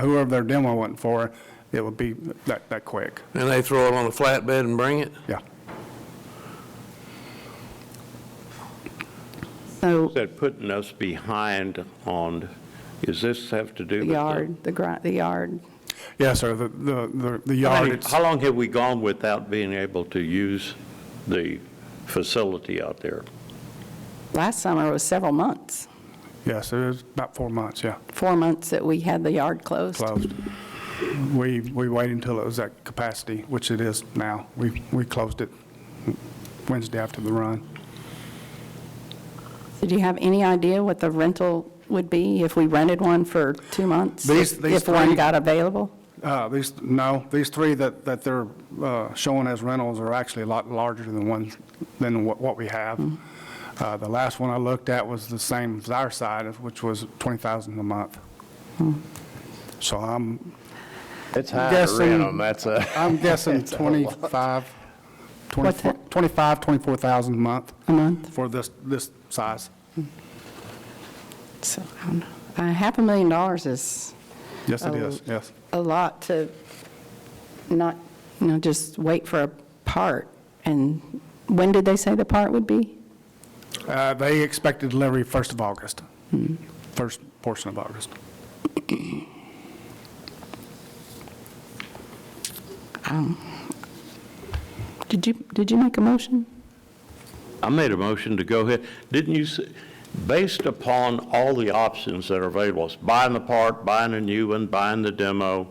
whoever they're demoing it for, it would be that, that quick, And they throw it on a flatbed and bring it? yeah. So That putting us behind on, is this have to do the with? the- yard, the gri, the yard. Yeah, sir, the, the, the- the How yard, many- it's- How long have we gone without being able to use the facility out there? Last summer was several months, yes, it was about four months, yeah, four months that we had the yard closed. closed. We, we waited until it was at capacity, which it is now. We, we closed it Wednesday after the run. Did you have any idea what the rental would be if we rented one for two months? These- If- these If one three- got available? Uh, These, no, these three that, that they're uh, showing as rentals are actually a lot larger than ones, than what what we have. Mm-hmm. Uh, The last one I looked at was the same as our side, which was 20,000 a month. Hmm. So I'm, It's high to Guessing- rent 'em, that's a. I'm guessing 25, 24 that? 25, 24,000 a month A month? for this, this size. So, I don't know. Uh, half a million dollars is Yes, it Oh. is, yes. a lot to not, you know, just wait for a part. And when did they say the part would be? Uh, They expected delivery 1st of August, Hmm. first portion of August. Did you, did you make a motion? I made a motion to go ahead. Didn't you, s- based upon all the options that are available, it's buying the part, buying a new one, buying the demo,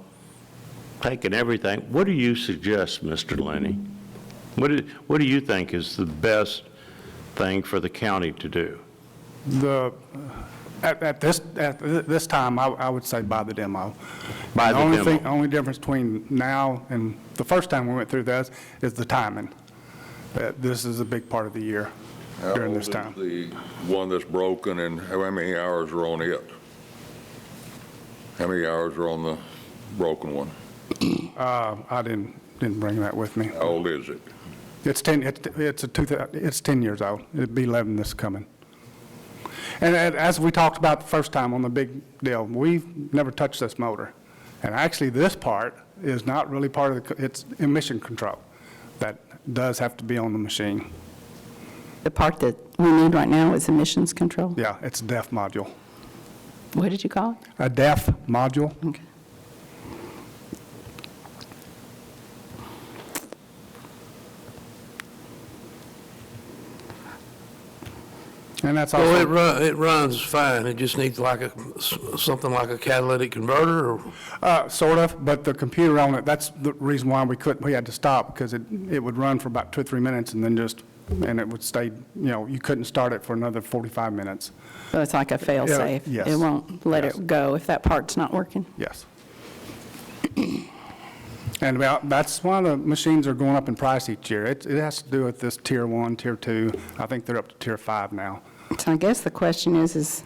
taking everything, what do you suggest, Mr. Lenny? What do, what do you think is the best thing for the county to do? The, at, at this, at thi- this time, I, I would say buy the demo. Buy the only demo. thing- Only difference between now and the first time we went through this is the timing. That This is a big part of the year during this How old time. is the one that's broken and how many hours are on it? How many hours are on the broken one? Uh, I didn't, didn't bring that with me. How old is it? It's 10, it's, it's a two, thou- it's 10 years old. It'd be 11 this coming. And a- as we talked about the first time on the big deal, we've never touched this motor. And actually, this part is not really part of the, co- it's emission control. That does have to be on the machine. The part that we need right now is emissions control? Yeah, it's a DEF module. What did you call it? A DEF module? Okay. And that's Well, it also, run, it runs fine, it just needs like a, s- something like a catalytic converter, or, uh, sort of, but the computer on it, that's the reason why we couldn't, we had to stop, because it, it would run for about two, or three minutes and then just, and it would stay, you know, you couldn't start it for another 45 minutes. So it's like a fail-safe? yes. It won't let Yes. it go if that part's not working? Yes. And about, that's why the machines are going up in price each year. It, it has to do with this tier one, tier two. I think they're up to tier five now. So I guess the question is, is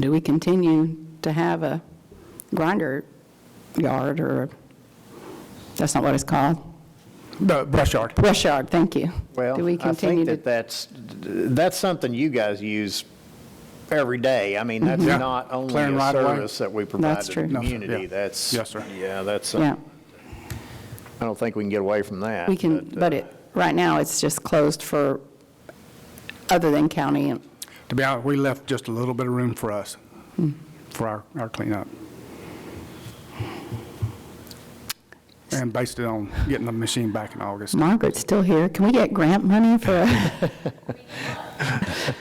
do we continue to have a grinder yard or, a- that's not what it's called, The brush yard. brush yard, thank you. Do Well, we I continue think to that that's, that's something you guys use every day. I mean, that's Yeah. not only Clearing a right away. service that we provide Mm-hmm. That's to true. the No, sir. Yeah. community. That's. Yes, sir. Yeah, that's, uh, Yeah, I don't think we can get away from that. we can, uh, but it, right now, it's just closed for, other than county, and To be honest, we left just a little bit of room for us, for our, our cleanup. And based it on getting the machine back in August. Margaret's still here. Can we get grant money for? a- I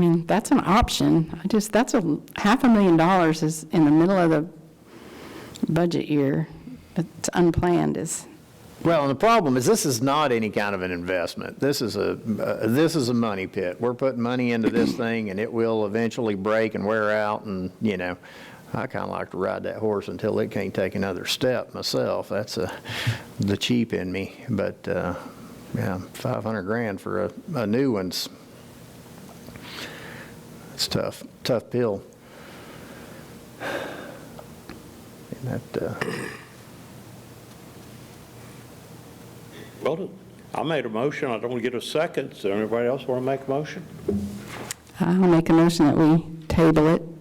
mean, that's an option. I just, that's a, half a million dollars is in the middle of the budget year. It's unplanned is, Well, and the problem is this is not any kind of an investment. This is a, uh, this is a money pit. We're putting money into this thing and it will eventually break and wear out and, you know, I kind of like to ride that horse until it can't take another step myself. That's uh, the cheap in me. But, uh, yeah, 500 grand for a, a new one's, it's tough, tough pill. And that, uh, Well, I made a motion, I don't want to get a second, so anybody else want to make a motion? I'll make a motion that we table it